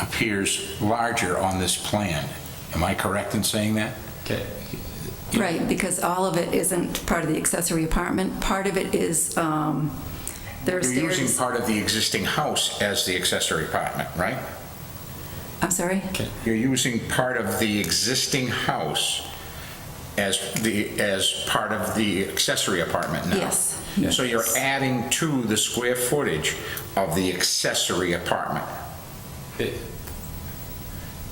appears larger on this plan. Am I correct in saying that? Okay. Right, because all of it isn't part of the accessory apartment. Part of it is, um, there are You're using stairs. part of the existing house as the accessory apartment, right? I'm sorry? You're using part of the existing house as the, as part of the accessory apartment now? Yes. So you're adding to the square footage of the accessory apartment? Uh,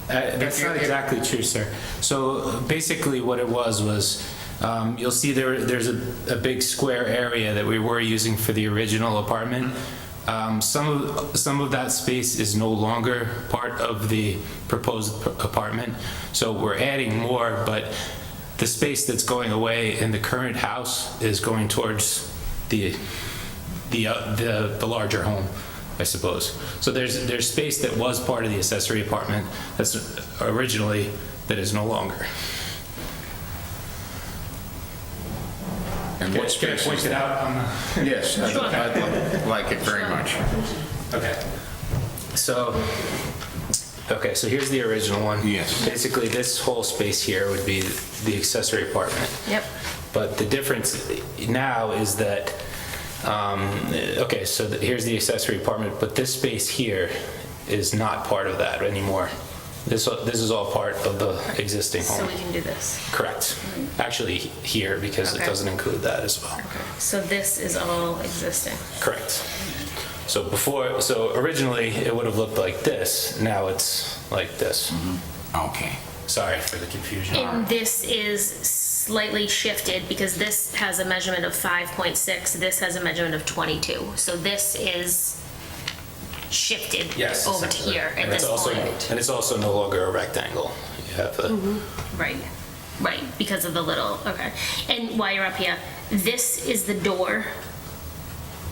That's not exactly true, sir. So basically, what it was was, um, you'll see there, there's a, a big square area that we were using for the original apartment. Um, Some of, some of that space is no longer part of the proposed p- apartment, so we're adding more, but the space that's going away in the current house is going towards the, the, uh, the, the larger home, I suppose. So there's, there's space that was part of the accessory apartment that's originally, that is no longer. And Can I what space point is it that? out on the? Yes, I'd I'd like it very much. Okay. So, okay, so here's the original one. Yes. Basically, this whole space here would be the accessory apartment. Yep. But the difference now is that, um, okay, so the- here's the accessory apartment, but this space here is not part of that anymore. This, this is all part of the existing So home. we can do this. Correct. Actually, here, because it Okay. doesn't include that as well. So this is all existing. Correct. So before, so originally it would have looked like this, now it's like this. Okay. Sorry for the confusion. And this is slightly shifted because this has a measurement of 5.6, this has a measurement of 22. So this is shifted Yes. over to essentially. here at And it's this also- point. Mm-hmm. And it's also no longer a rectangle. You have a- Right, right, because of the little, okay. And while you're up here, this is the door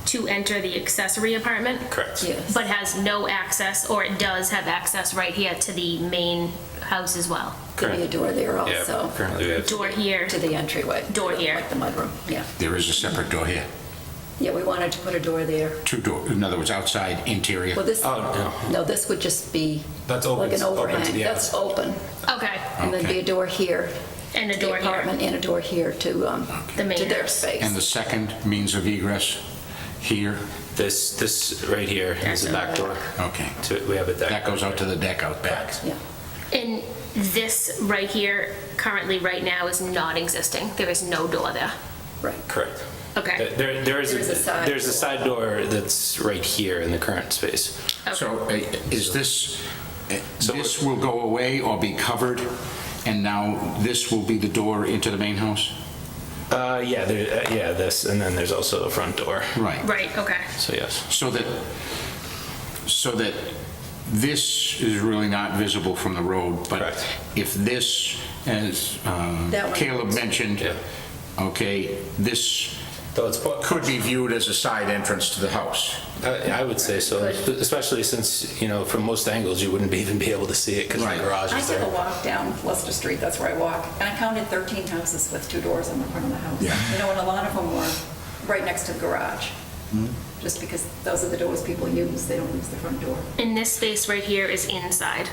to enter the accessory apartment? correct. Yes. But has no access, or it does have access right here to the main house as well. Could be a door there Yeah, also, currently we have. Door here, to the entryway. Door here. Like the mudroom, yeah. There is a separate door here. Yeah, we wanted to put a door there. Two door, in other words, outside, interior. Well, this, Oh, no. no, this would just be That's open- like an open to overhang. the That's outside. open. okay, And there'd be Okay. a door here. and a to the door here. apartment And a door here to, um, The main to their house. space. And the second means of egress here? This, this right here is the back door. Okay. To- We have a deck. That goes out to the deck out back. Yeah. And this right here, currently, right now, is not existing. There is no door there. Right. Correct. Okay. There- There, there is, There's a a- side there's a door. side door that's right here in the current space. So uh, is this, uh, So- this will go away or be covered, and now this will be the door into the main house? Uh, yeah, there, uh, yeah, this, and then there's also a front door. Right. Right, okay. So yes. So that, so that this is really not visible from the road, but Correct. if this, as um, That one. Caleb mentioned, Yeah. okay, this Though it's part, could be viewed as a side entrance to the house. I, I would say so, especially since, you know, from most angles, you wouldn't be- even be able to see it because the Right. garage I is took a there. walk down Leicester Street, that's where I walk, and I counted 13 houses with two doors on the front of the house. Yeah. You know, and a lot of them were right next to the garage, just because those are the doors people use, they don't use the front door. And this space right here is inside.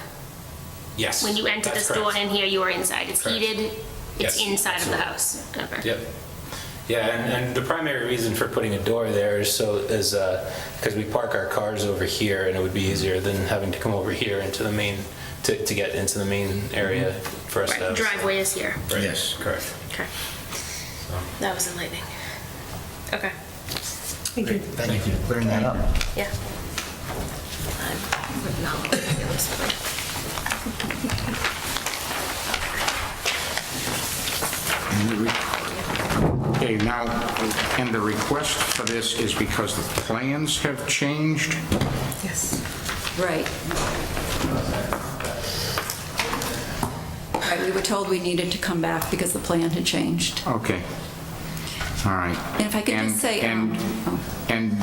Yes. When you enter that's this door correct. in here, you are inside. It's Correct. heated. It's Yes, inside of the absolutely. house. Okay. Yep. Yeah, and, and the primary reason for putting a door there is so, is, uh, because we park our cars over here and it would be easier than having to come over here into the main, to, to get into the main area for us to Right, have. driveway is here. Right, Yes. Correct. Okay. That was enlightening. Okay, Thank you for clearing that up. yeah. I'm would not want to feel this way. Okay, now, and the request for this is because the plans have changed? Yes. Right. Right, we were told we needed to come back because the plan had changed. Okay. All right. And if I could just say, um, And, and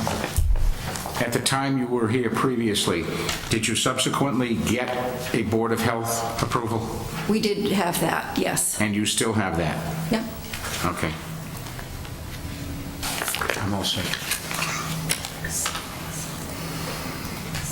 at the time you were here previously, did you subsequently get a Board of Health approval? um, We did have that, yes. And you still have that? Yep. Okay. I'm all set.